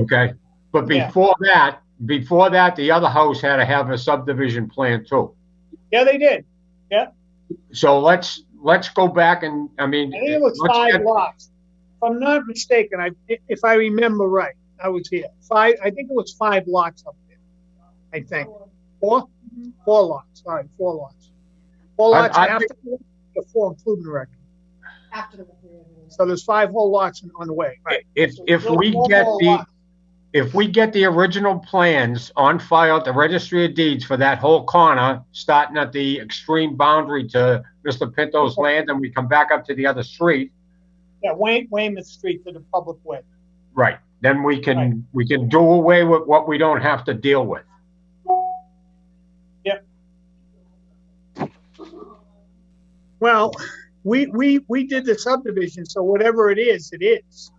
Okay, but Yeah. before that, before that, the other house had to have a subdivision plan too. Yeah, they did. So let's, let's go back and, I mean. I think it was let's five get- lots. If I'm not mistaken, I, if I remember right, I was here. Five, I think it was five lots up there. I think. Four? Four lots, sorry, four lots. Four I- lots I after, the four including the record. After the. So there's five whole lots on the way, right? If, if we Four get whole the, lots. if we get the original plans on file at the registry of deeds for that whole corner, starting at the extreme boundary to Mr. Pinto's land, and we come back up to the other street, Yeah, Wayne, Weymouth Street to the public way. right, then we Right. can, we can do away with what we don't have to deal with. Well, we, we, we did the subdivision, so whatever it is, it is.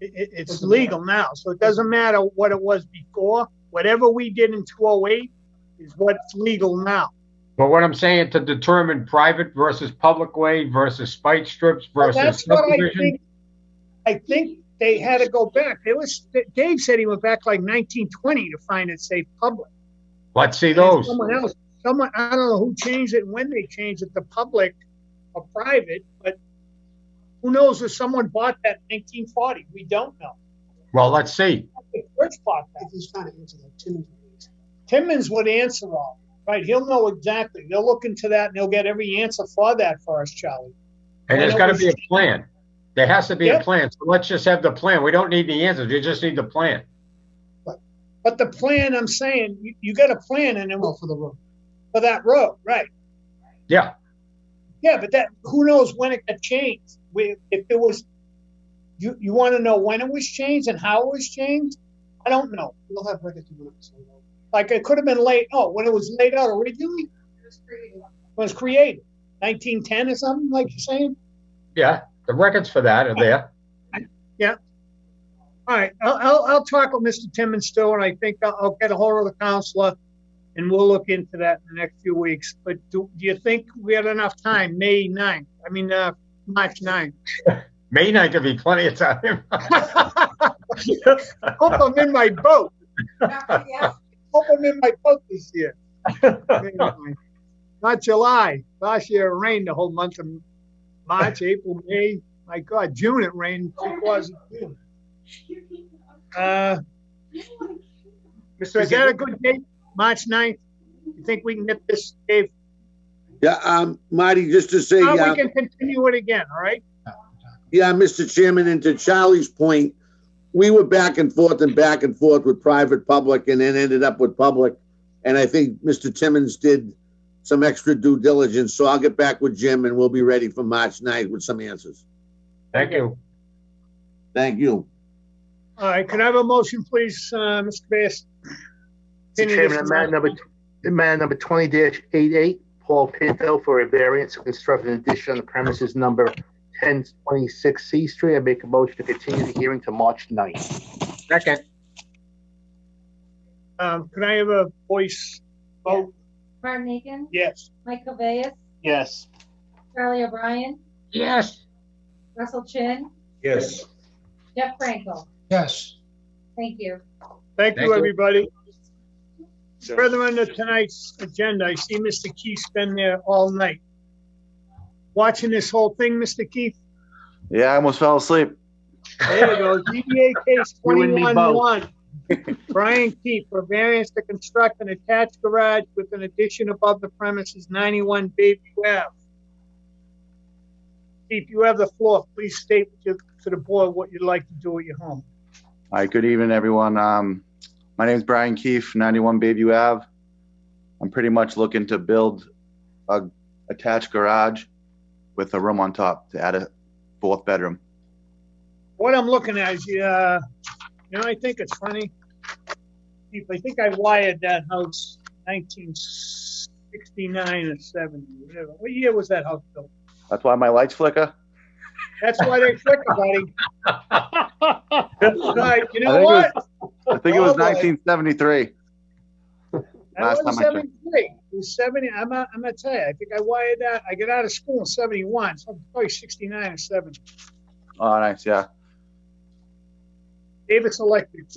It, it- it's Doesn't legal now, so it doesn't matter what it was before. Whatever we did in two oh eight is what's legal now. But what I'm saying to determine private versus public way versus spike strips Well, versus that's what I subdivision. think- I think they had to go back. It was, Dave said he went back like nineteen twenty to find it safe public. Let's see And then those. Someone else, someone, I don't know who changed it, when they changed it, to public or private, but who knows if someone bought that nineteen forty? We don't know. Well, let's see. The church bought that. He's trying to answer that too. Timmons would answer all, right? He'll know exactly. They'll look into that and they'll get every answer for that for us, Charlie. And there's gotta be a plan. There has to be a Yep. plan. So let's just have the plan. We don't need the answers. We just need the plan. But the plan, I'm saying, you, you got a plan and then Well, Oh, for the road. for that road, right? Yeah, Yeah, but that who knows when it got changed? We, if it was, you you want to know when it was changed and how it was changed? I don't know. We'll have records to look, so. Like it could have been laid. Oh, when it was laid out originally, when it was created, 1910 or something, like you're saying. yeah. The records for that are there. All right, I'll I'll, I'll talk with Mr. Timmons still, and I think I'll, I'll get a hold of the counselor, and we'll look into that in the next few weeks. But do, do you think we had enough time? May 9th. I mean, uh, March 9th. May night could be plenty of time. Hope I'm in my boat. hope I'm in my boat this year. Not July. Last year it rained the whole month of March, April, May. My God, June it rained. Three quarters of June. Uh, is that a good date? March 9th? You think we can get this, Dave? Yeah, um, Marty, just to say, Now uh, we can continue it again, all right? yeah, Mr. Chairman, and to Charlie's point, we were back and forth and back and forth with private, public, and then ended up with public. And I think Mr. Timmons did some extra due diligence, so I'll get back with Jim and we'll be ready for March 9th with some answers. Thank you. Thank you. All right, can I have a motion, please, uh, Mr. Bass? Mr. Chairman, on matter number, in matter number twenty dash eight eight, Paul Pinto for a variance to construct an addition on the premises number ten twenty-six C Street. I make a motion to continue the hearing to March 9th. Second, Um, can I have a voice vote? Martin Egan, Yes. Mike Cabeas, Yes. Charlie O'Brien, yes. Russell Chin, Yes. Jeff Frankel. Yes. Thank you. Thank Thank you, you. everybody. Further on to tonight's agenda, I see Mr. Keith's been there all night. Watching this whole thing, Mr. Keith, Yeah, I almost fell asleep. there you go, ZBA case You and me both. twenty-one one. Brian Keith for variance to construct an attached garage with an addition above the premises ninety-one Bayview Ave. Keith, you have the floor. Please state to to the board what you'd like to do at your home. All right, good evening, everyone. Um, my name is Brian Keefe, 91 Bayview Ave. I'm pretty much looking to build a attached garage with a room on top to add a fourth bedroom. what I'm looking at is, uh, you know, I think it's funny. Keith, I think I wired that house 1969 or 70. Whatever. What year was that house built? That's why my lights flicker. That's why they click buddy. All right, you I know think it what? I think it was Oh, boy. 1973. That last was time I checked. 73. It was 70. I'm, not- I'm gonna tell you. I think I wired that. I got out of school in 71, so probably 69 or 70. Oh, nice. Yeah. Davis Electric.